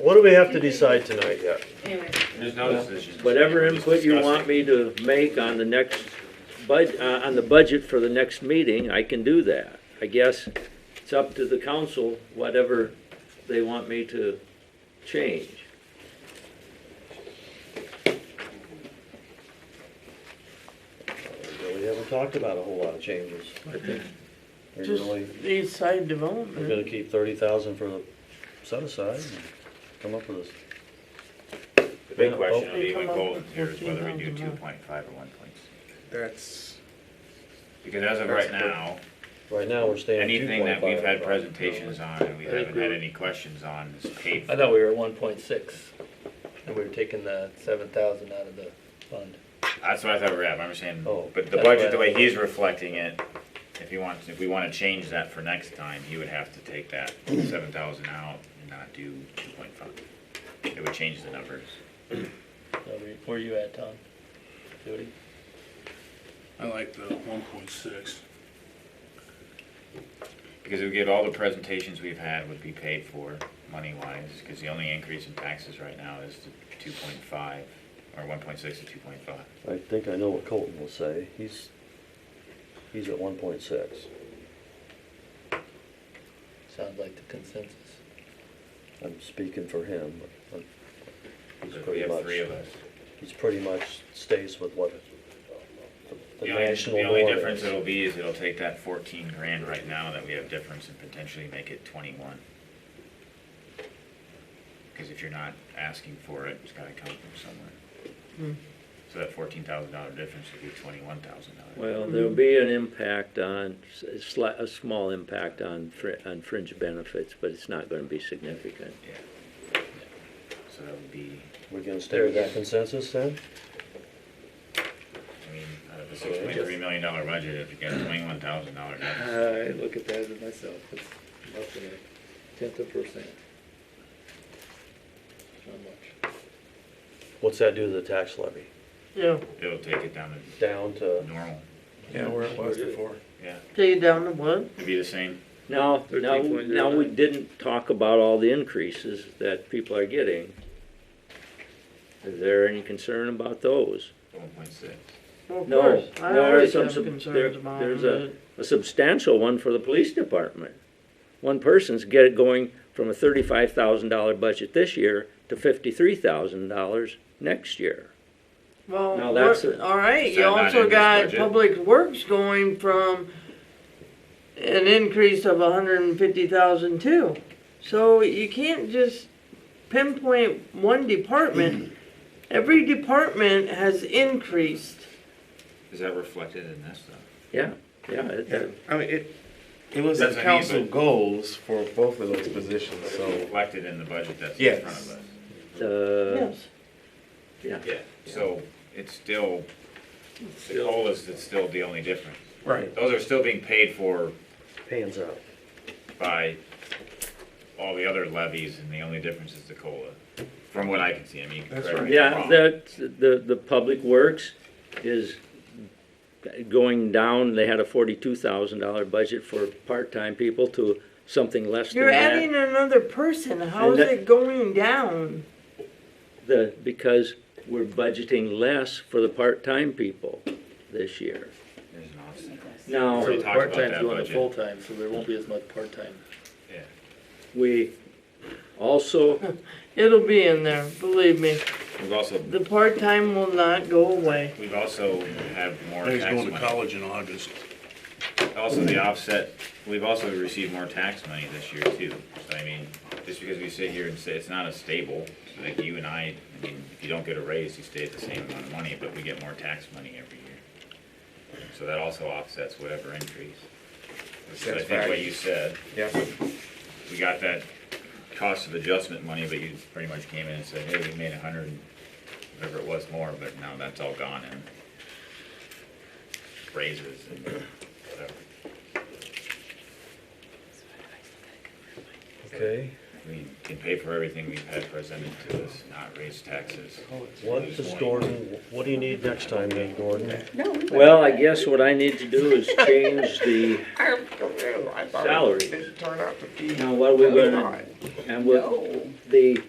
what do we have to decide tonight yet? Anyway, There's no decision. Whatever input you want me to make on the next bud, uh, on the budget for the next meeting, I can do that. I guess it's up to the council, whatever they want me to change. We haven't talked about a whole lot of changes. I think We're Just really, the side we're development. gonna keep thirty thousand for the set aside and come up with this. The big question will be when gold here is whether we do two point five or one point six. That's, Because as of right now, Right now, we're staying two anything point that five. we've had presentations on and we I haven't had agree. any questions on is paid I for. thought we were at one point six, and we were taking the seven thousand out of the fund. That's what I thought we were at, but I'm saying, Oh. but That's the what budget, I the way thought. he's reflecting it, if he wants, if we wanna change that for next time, he would have to take that seven thousand out and not do two point five. It would change the numbers. So we- Where you at, Tom? Jody? I like the one point six. Because it would get all the presentations we've had would be paid for, money-wise, because the only increase in taxes right now is to two point five, or one point six to two point five. I think I know what Colton will say. He's, he's at one point six. Sounds like the consensus. I'm speaking for him, but I'm- he's We pretty have much, three of us. he's pretty much stays with what the- the The only, national the only norm difference is. it'll be is it'll take that fourteen grand right now that we have difference and potentially make it twenty-one. Because if you're not asking for it, it's gotta come from somewhere. So that fourteen thousand dollar difference would be twenty-one thousand dollars. Well, there'll be an impact on, a sli- a small impact on fr- on fringe benefits, but it's not gonna be significant. Yeah. So that would be, We're gonna stay with that consensus then? I mean, out of a six point three million dollar budget, if you got a twenty-one thousand dollar deficit. I look at that as myself, it's less than a tenth of percent. Not much. What's that do to the tax levy? Yeah, It'll take it down Down to to, normal, Yeah, where it was before. yeah, take it down to what? it'd be the same. Now, now, 13.09. now, we didn't talk about all the increases that people are getting. Is there any concern about those? One point six. Well, of No, course, I there are always some have sub- there- concerns about there's it. A substantial one for the police department. One person's get it going from a thirty-five thousand dollar budget this year to fifty-three thousand dollars next year. Well, No, that's wor- a- all right, Is you that not in also this got budget? public works going from an increase of a hundred and fifty thousand too. So you can't just pinpoint one department. Every department has increased. Is that reflected in this though? Yeah, yeah, it- Yeah, I mean, it, it was That's the what I mean, council but- goals for both of those positions, so. Reflected in the budget that's in front of Yes. us. the, Yes, uh, yeah. Yeah. So it's still, the COLA is it's still the only difference. Right. Those are still being paid for pans out. by all the other levies and the only difference is the COLA, from what I can see. I mean, you can That's correct right. me if I'm Yeah, wrong. that, the, the public works is going down, they had a forty-two thousand dollar budget for part-time people to something less than you're that. adding another person, how And is that- it going down? The, because we're budgeting less for the part-time people this year. There's an offset. Now, Already So the talked about part-time's that going to budget. full-time, so there won't be as much part-time. Yeah. we also, It'll be in there, believe me. We've also, The part-time will not go away. we've also have more He's tax going to money. college in August. Also, the offset, we've also received more tax money this year too. So I mean, just because we sit here and say it's not a stable, like you and I, I mean, if you don't get a raise, you stay at the same amount of money, but we get more tax money every year. So that also offsets whatever increase. Which is, I That's think what right. you said, Yeah. we got that cost of adjustment money, but you pretty much came in and said, hey, we made a hundred and whatever it was more, but now that's all gone in raises and whatever. Okay, We can pay for everything we've had presented to us, not raise taxes. what does Gordon, what do you need next time then, Gordon? well, I guess what I need to do is change the, I'm thrilled. I thought Salary. It didn't turn out to be. Now, what are we what I gonna- thought. and what, the